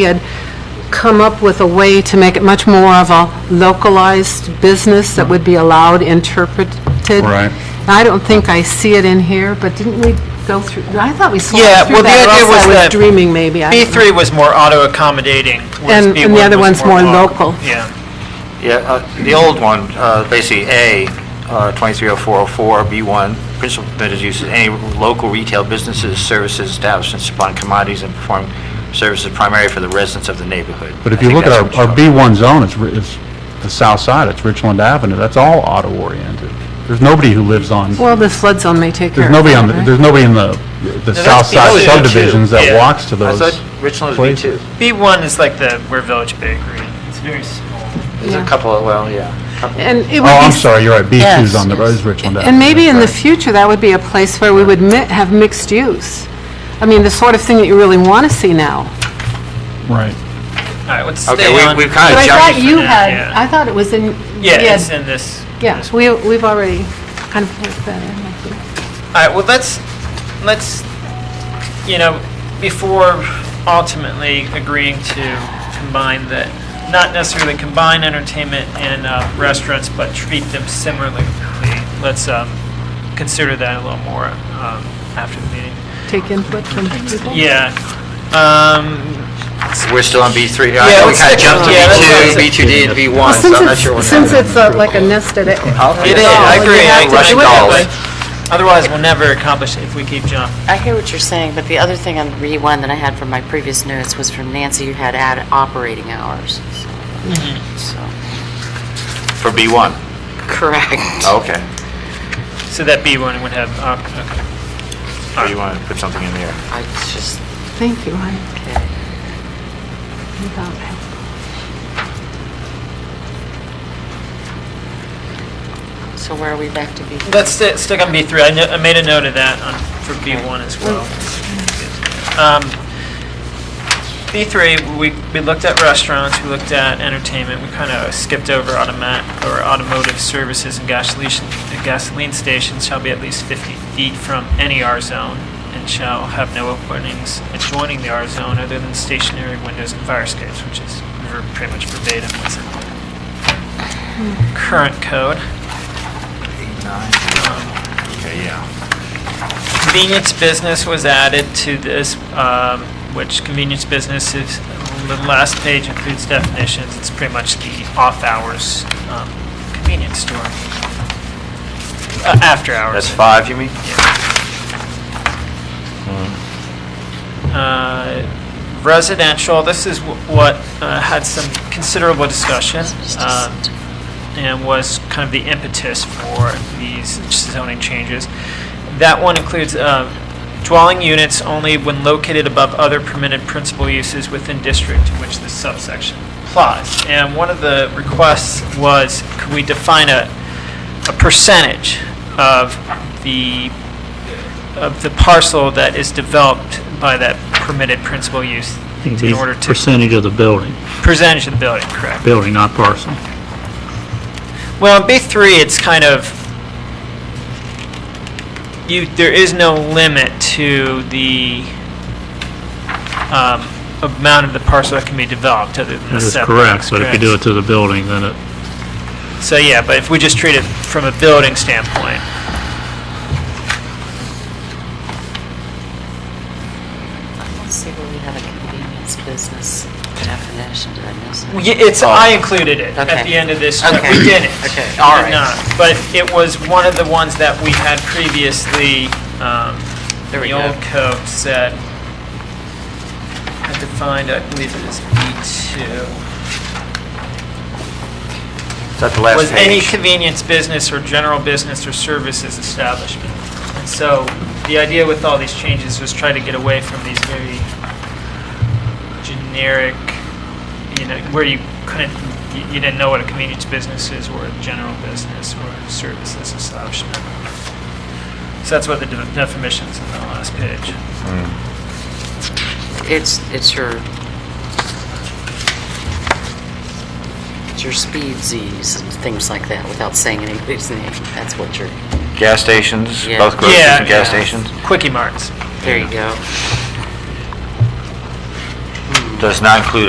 we had come up with a way to make it much more of a localized business that would be allowed interpreted. Right. I don't think I see it in here, but didn't we go through, I thought we slowed Yeah, through well, the that, or idea else was I was that dreaming maybe. I don't know. B3 was more auto-accommodating, whereas And- B1 and the other was one's more local. Yeah, Yeah, uh, the old one, uh, basically A, uh, 230404, B1, principal permitted use of any local retail businesses, services, establishments supplying commodities and performing services primarily for the residents of the neighborhood. But if I you think look at that's our, what our you're talking B1 zone, it's, ri- it's the south side, it's Richland Avenue, that's all auto-oriented. There's nobody who lives on, Well, this flood zone may take care there's of it. nobody on, the right? there's nobody in the, the south side B2. subdivisions that Yeah. walks to about. those. I thought Richland was places. B2. B1 is like the, we're Village Bakery, it's very small. There's Yeah. a couple of, well, yeah. couple- And it would be... Oh, I'm sorry, you're right, B2's Yes, on the, yes. is Richland Avenue. And maybe in the Right. future, that would be a place where we would mi- have mixed use. I mean, the sort of thing that you really want to see now. Right. All right, let's stay Okay, we- on. we've But kind of I jumped. thought you now, had, yeah. I thought it was in, Yeah, it's yes, in this. yeah, this- we, we've already kind of worked that in. I think. All right, well, let's, let's, you know, before ultimately agreeing to combine the, not necessarily combine entertainment and uh, restaurants, but treat them similarly, let's um, consider that a little more um, after the meeting. Take input from people. Yeah. Um, We're still on B3. I Yeah, know we let's kind of stick jumped to on- yeah, that's- B2, B2D, and Well, B1, so since I'm not sure. it's, what since happened. it's uh, like a nested, it- I'll- It yeah, is, I you agree. have I to Russian do it agree. that dolls. way. Otherwise, we'll never accomplish it if we keep jumping. I hear what you're saying, but the other thing on re-one that I had from my previous notes was from Nancy, you had add operating hours. so- So, For B1, correct. okay. So that B1 would have, uh, okay. So you want to put something in there. I just, Thank you, I okay. I thought that- So where are we back to be? Let's sti- stick on B3. I kno- I made a note of that on, for B1 as well. Um, B3, we, we looked at restaurants, we looked at entertainment, we kind of skipped over automat, or automotive services and gasoline, gasoline stations shall be at least 50 feet from any R zone and shall have no openings adjoining the R zone other than stationary windows and fire escapes, which is ver- pretty much verbatim what's in the current code. Okay, yeah. Convenience business was added to this, um, which convenience business is, the last page includes definitions. It's pretty much the off-hours um, convenience store. Uh, After That's hours. five, you mean? Uh, Residential, this is wh- what uh, had some considerable discussion um, and was kind of the impetus for these zoning changes. That one includes uh, dwelling units only when located above other permitted principal uses within district to which this subsection applies. And one of the requests was, could we define a, a percentage of the, of the parcel that is developed by that permitted principal use It'd in be order to, Percentage of the building, percentage of the building, correct? building, not parcel. Well, in B3, it's kind of, you, there is no limit to the um, amount of the parcel that can be developed other than the That is setbacks. correct, but if you do it to the building, then it, So, yeah, but if we just treat it from a building standpoint. Let's see where we have a convenience business definition, did I miss Well, it? yeah, It's, I included it Oh. Okay. at the end of this, but Okay. we didn't. Okay, We all did right. not. But it was one of the ones that we had previously, um, There we the go. old code said, had defined, I believe it is B2. Is that the last Was page? any convenience business or general business or services establishment. And so the idea with all these changes was try to get away from these very generic, you know, where you couldn't, you- you didn't know what a convenience business is or a general business or services establishment. So that's what the de- definitions on the last page. It's, it's your, it's your speed Zs and things like that, without saying anybody's name. That's what you're, Gas stations, Yeah. both groceries Yeah, and gas yeah. stations? Quickie marts. there you go. Hmm. does not include a